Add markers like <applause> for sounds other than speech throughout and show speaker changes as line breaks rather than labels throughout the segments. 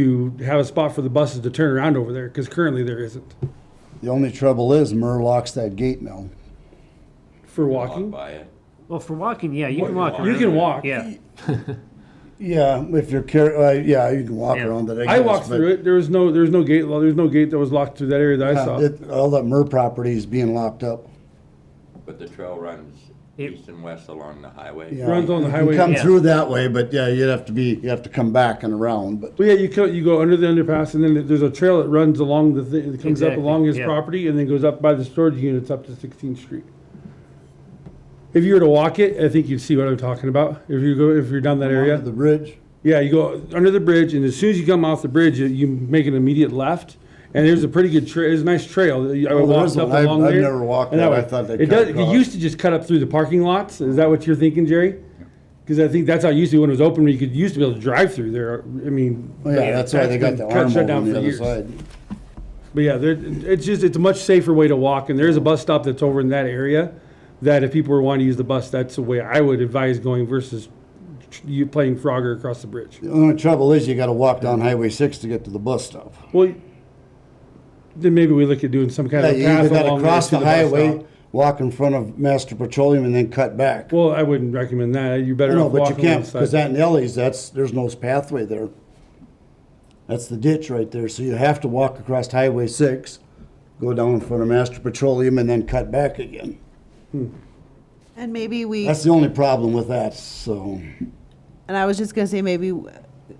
to have a spot for the buses to turn around over there, because currently there isn't,
The only trouble is Murlocks that gate now.
for
walk
walking.
by it.
Well, for walking, yeah, you can walk.
walk.
You
around.
can walk.
Yeah,
Yeah, if you're car, uh, yeah, you can walk
Yeah.
around it.
I walked through it, there was no, there was no gate, well, there was no gate that was locked through that area that I saw.
uh, All that Mur property is being locked up.
But the trail runs
It-
east and west along the highway.
Yeah.
Runs on the
You can
highway.
Come
Yeah.
through that way, but yeah, you'd have to be, you have to come back and around, but
Well, yeah, you go, you go under the underpass, and then there's a trail that runs along the, thi- that comes up
Exactly,
along his
yeah.
property, and then goes up by the storage units up to Sixteenth Street. If you were to walk it, I think you'd see what I'm talking about, if you go, if you're down that area.
the bridge.
Yeah, you go under the bridge, and as soon as you come off the bridge, you, you make an immediate left, and there's a pretty good trail. There's a nice trail. I
Oh, there
walked
is
up
one. I've-
along
I've
there.
never walked
and
that.
way-
I thought they
it
cut
does. It
across.
used to just cut up through the parking lots. Is that what you're thinking, Jerry? Because I think that's how it used to be when it was open. You could used to be able to drive through there. I mean,
Well, Oh, Yeah, that's why they got
been
the
cut
arm
shut
over
down
on
for
the other
years.
side.
But yeah, there, it's just it's a much safer way to walk, and there is a bus stop that's over in that area. That if people were wanting to use the bus, that's the way I would advise going versus tr- you playing Frogger across the bridge.
The only trouble is you gotta walk down Highway six to get to the bus stop.
Well, then maybe we look at doing some kind
Yeah,
of
you
a path
either gotta
along there
cross
to
the
bus
highway,
stop.
walk in front of Master Petroleum and then cut back.
Well, I wouldn't recommend that. You're better
No,
off
but you
walking on
can't,
the
because
side.
that Nelly's, that's, there's no pathway there. That's the ditch right there, so you have to walk across Highway six, go down in front of Master Petroleum and then cut back again.
And maybe we,
That's the only problem with that, so,
and I was just gonna say, maybe,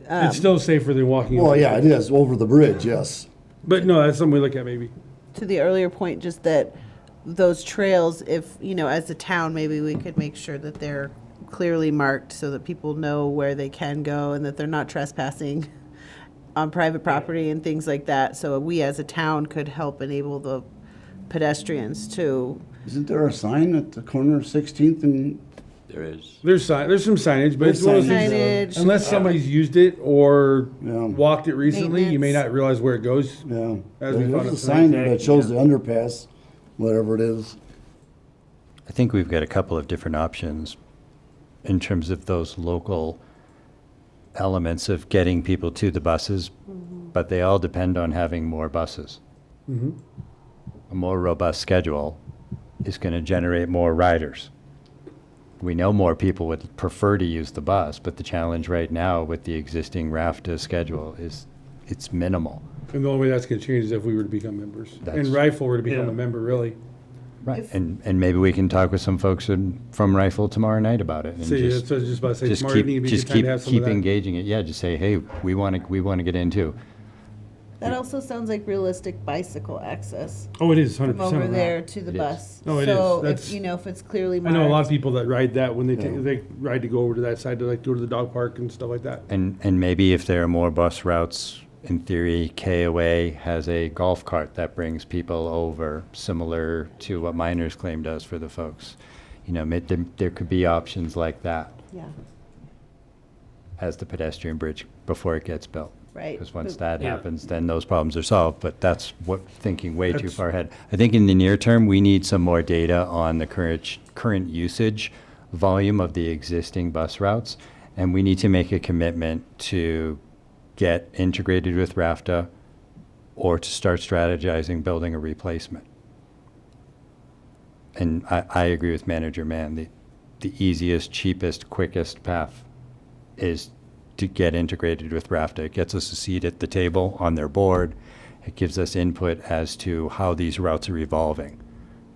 It's still safer than walking.
well,
over.
yeah, it is, over the bridge, yes.
But no, that's something we look at maybe.
to the earlier point, just that those trails, if, you know, as a town, maybe we could make sure that they're clearly marked so that people know where they can go and that they're not trespassing <laughs> on private property and things like that. So we as a town could help enable the pedestrians to,
Isn't there a sign at the corner of Sixteenth and,
There is.
There's si- there's some signage, but it's
There's
one of those things.
signage. Signage.
Unless somebody's used it or
Yeah.
walked it recently, you may
Maintenance.
not realize where it goes.
yeah,
As we found
there's
it
a sign there
tonight.
that shows the underpass, whatever it is.
I think we've got a couple of different options in terms of those local elements of getting people to the buses, but they all depend on having more buses. A more robust schedule is going to generate more riders. We know more people would prefer to use the bus, but the challenge right now with the existing RAFTA schedule is it's minimal.
And the only way that's going to change is if we were to become members. And
That's-
Rifle were to become
Yeah.
a member, really.
Right. And, and maybe we can talk with some folks in, from Rifle tomorrow night about it. and
So yeah,
just-
that's what I was just about to say.
just
Tomorrow evening would
keep
be a
just
good time
keep
to have some
keep
of that.
engaging it. Yeah, just say, hey, we want to we want to get into.
that also sounds like realistic bicycle access
Oh, it is 100%.
from over
allowed.
there to the
It is.
bus.
No, it is.
So
That's-
if, you know, if it's clearly
I
marked.
know a lot of people that ride that when they take, they ride to go over to that side to like go to the dog park and stuff like that.
And and maybe if there are more bus routes, in theory, KOA has a golf cart that brings people over, similar to what Miners Claim does for the folks. You know, ma- there, there could be options like that
Yeah,
as the pedestrian bridge before it gets built.
right.
Because once
But-
that
Yeah.
happens, then those problems are solved, but that's what, thinking way too
That's-
far ahead. I think in the near term, we need some more data on the current, current usage volume of the existing bus routes, and we need to make a commitment to get integrated with RAFTA or to start strategizing building a replacement. And I, I agree with Manager Mann, the, the easiest, cheapest, quickest path is to get integrated with RAFTA. It gets us a seat at the table on their board. It gives us input as to how these routes are evolving.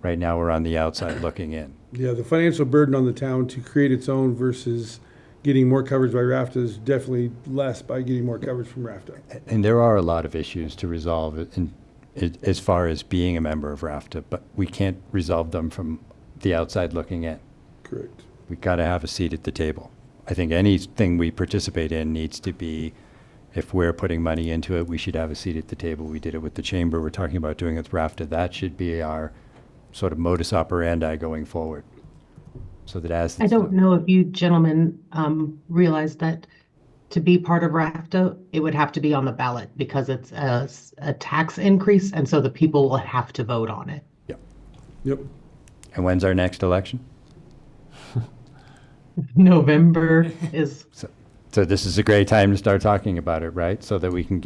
Right now, we're on the outside looking in.
Yeah, the financial burden on the town to create its own versus getting more coverage by RAFTA is definitely less by getting more coverage from RAFTA.
And there are a lot of issues to resolve in, in, as far as being a member of RAFTA, but we can't resolve them from the outside looking in.
Correct.
We've got to have a seat at the table. I think anything we participate in needs to be, if we're putting money into it, we should have a seat at the table. We did it with the chamber. We're talking about doing it with RAFTA. That should be our sort of modus operandi going forward. So that as
I don't know if you gentlemen um, realize that to be part of RAFTA, it would have to be on the ballot because it's a, s- a tax increase, and so the people will have to vote on it.
Yeah.
Yep.
And when's our next election?
November is
So, So this is a great time to start talking about it, right? So that we can get